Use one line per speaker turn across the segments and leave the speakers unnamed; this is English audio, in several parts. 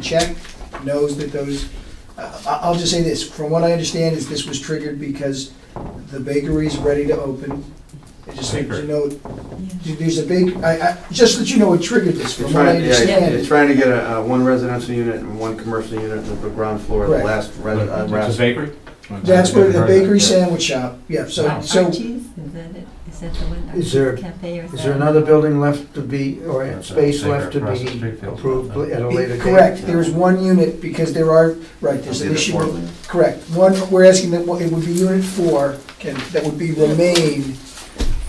check knows that those, I- I- I'll just say this, from what I understand is this was triggered because the bakery's ready to open. I Just so
Baker.
you know, there's a big, I, I, just that you know it triggered this,
They're
from what I
trying, yeah, they're
understand.
trying to get a, uh, one residential unit and one commercial unit on the ground floor, of the
Correct.
last res- uh,
It's a
rest.
bakery?
That's where the bakery
Yeah.
sandwich shop, yeah, so,
Wow.
so,
Archie's, is that it? Is that the one?
Is there-
Cafe or is
Is
that-
there another building left to be, or
That's a
space
bigger
left to
across the street
be
field.
approved at a later date?
correct, there is one unit because there are, right, there's an issue. with- Correct, one, we're asking that, it would be unit four, can, that would be remain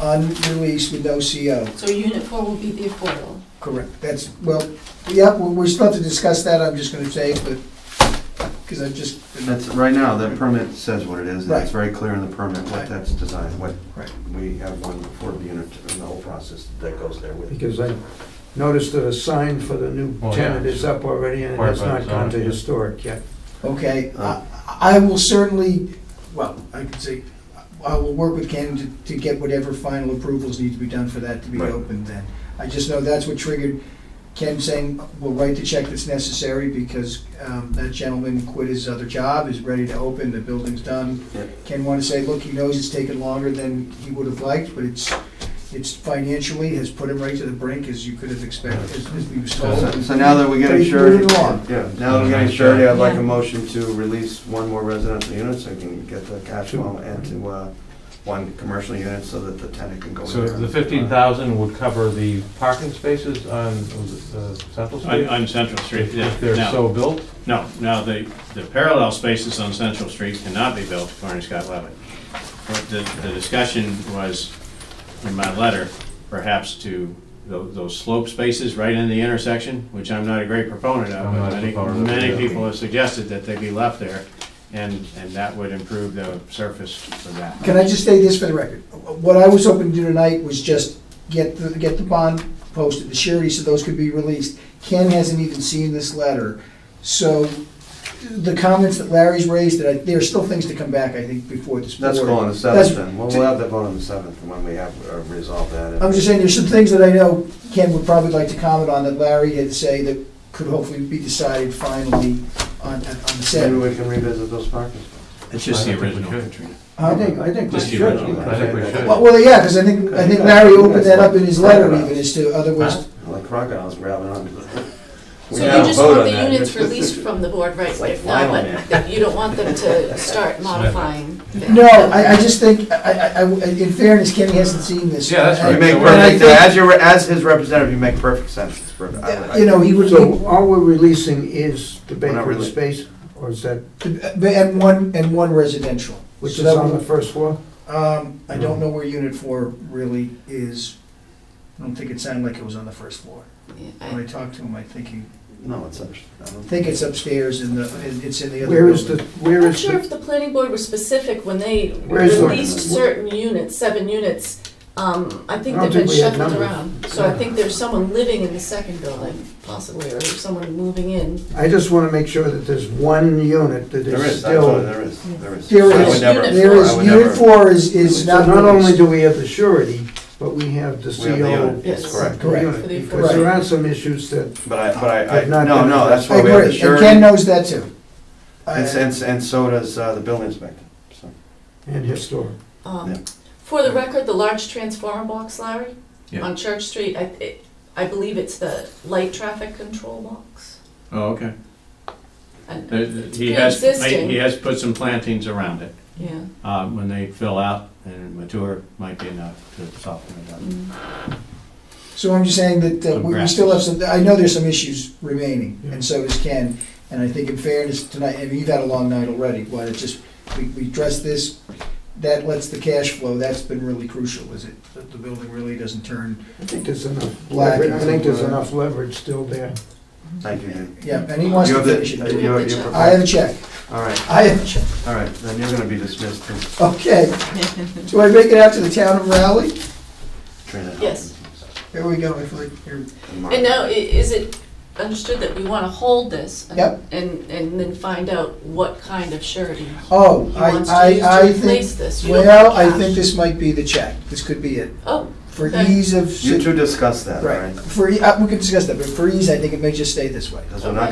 unreleased with no CO.
So unit four will be the affordable.
Correct, that's, well, yeah, we- we're supposed to discuss that, I'm just gonna say, but, because I just,
That's, right now, that permit says what it is, and it's
Right.
very clear in the permit what that's designed, what,
Right.
we have one for the unit and the whole process that goes there with it.
Because I noticed that a sign for the new
Well, yeah,
tenant
it's
is up already, and it
required
has
by
not
the
gone to
zoning.
historic yet.
okay, I, I will certainly, well, I could say, I will work with Ken to, to get whatever final approvals need to be done for that to be
Right.
opened then. I just know that's what triggered Ken saying, we'll write the check that's necessary, because, um, that gentleman quit his other job, is ready to open, the building's done, Ken want to say, look, he knows it's taken longer than he would have liked, but it's, it's financially has put him right to the brink as you could have expected, as as we was told.
So so now that we're
But
getting
he's moving
surety,
along.
yeah, now that we're getting surety, I'd like a
Yeah.
motion to release one more residential unit, so I can get the cash flow and to, uh, one commercial unit, so that the tenant can go in
So
there.
the fifteen thousand would cover the parking spaces on, was it, uh, Central
On,
Street?
on Central Street,
If
yeah.
if they're
Now-
so built?
No, no, the, the parallel spaces on Central Street cannot be built according to Scott Levitt. But the, the discussion was, in my letter, perhaps to tho- those slope spaces right in the intersection, which I'm not a great proponent of,
I'm not
but
a
many,
proponent of it
many
either.
people have suggested that they be left there, and, and that would improve the surface for that.
Can I just say this for the record? What I was hoping to do tonight was just get the, get the bond posted, the surety, so those could be released. Ken hasn't even seen this letter, so the comments that Larry's raised, that I, there are still things to come back, I think, before this board.
Let's go on the seventh
That's-
then, we'll, we'll have that vote on the seventh, when we have uh, resolved that. and-
I'm just saying, there's some things that I know Ken would probably like to comment on that Larry had say that could hopefully be decided finally on, on the
Maybe
set.
we can revisit those parking spots.
It's
just the original, Katrina.
I
Huh?
think, I think we
Just
should.
the original.
I think we should.
Well, well, yeah, because I think, I think Larry opened that up in his letter even as to
Huh?
otherwise.
Like crocodiles grabbing on. We
So
gotta
you just
vote
want
on
the
that.
units released from the board, right?
like
If not,
Lionel Man.
but that you don't want them to start modifying. them.
No, I, I just think, I, I, I- in fairness, Kenny hasn't seen this.
Yeah, that's
You
right.
make
And I
perfect, as your, as his representative, you make perfect sense. It's perfect. I would- I-
You know, he would,
So all we're releasing is the
We're not
bakery
really-
space, or is that,
and one, and one residential.
which
So
is
that
on the
would-
first floor?
Um, I don't know where unit four really is. I don't think it sounded like it was on the first floor.
Yeah, I-
When I talked to him, I think he,
No, it's such.
I think it's upstairs in the, it's in the other
Where is the,
building.
where
I'm not
is
sure
the,
if the planning board was specific when they
Where's the-
released certain units, seven units. Um, I think
I don't
they've been
think we had
shuffled
numbers.
around. So I think there's someone living in the second building possibly, or someone moving in.
I just want to make sure that there's one unit that
There
is
is, that's what-
still.
there is, there is.
There
I
is-
would never-
There
I
is,
would never-
unit four is, is
So
not.
not only
released.
do we have the surety, but we have the
We have the
CO
unit, it's
Yes.
correct.
Correct.
unit,
For the
Because there
affordable.
are some issues that
But I, but I, I,
But not
no,
that-
no, that's
I
why we have the
agree, and Ken
surety.
knows that too.
And, s-
Uh,
and, s- and so does uh, the building inspector, so.
And historic.
Um,
Yeah.
For the record, the large transformer box, Larry,
Yeah.
on Church Street, I, it- I believe it's the light traffic control box.
Oh, okay.
And-
There- He has,
Pre-existing.
he has put some plantings around it.
Yeah.
Uh, When they fill out and mature, might be enough to soften it up.
mm.
So I'm just saying that uh, we we still have some, I know there's some issues remaining, and so does Ken. And I think in fairness tonight, I mean, you've had a long night already, why not just, we, we address this, that lets the cash flow, that's been really crucial, is it? That the building really doesn't turn,
I think there's enough
Black
leverage, I think there's
and-
enough leverage still there.
Thank you, Dan.
yeah, and he wants
You
to
have the-
finish
uh,
it.
Do we
you-
have the
you-
check?
I have a check,
All right,
I have a check,
all right, then you're gonna be dismissed, too,
okay. Do I make it out to the town of Raleigh?
Trina.
Yes.
Here we go, if I- here-
And Mark.
And now, i- is it understood that we want to hold this? and-
Yep.
And, and then find out what kind of surety he
oh,
wants to
I, I,
use to
I think,
replace this? You don't
well, I
want
think
cash.
this might be the check, this could be it.
Oh,
For
Okay.
ease of.
You two discuss that, all
Right,
right?
for, e- uh, we can discuss that, but for ease, I think it may just stay this way.
Because we're not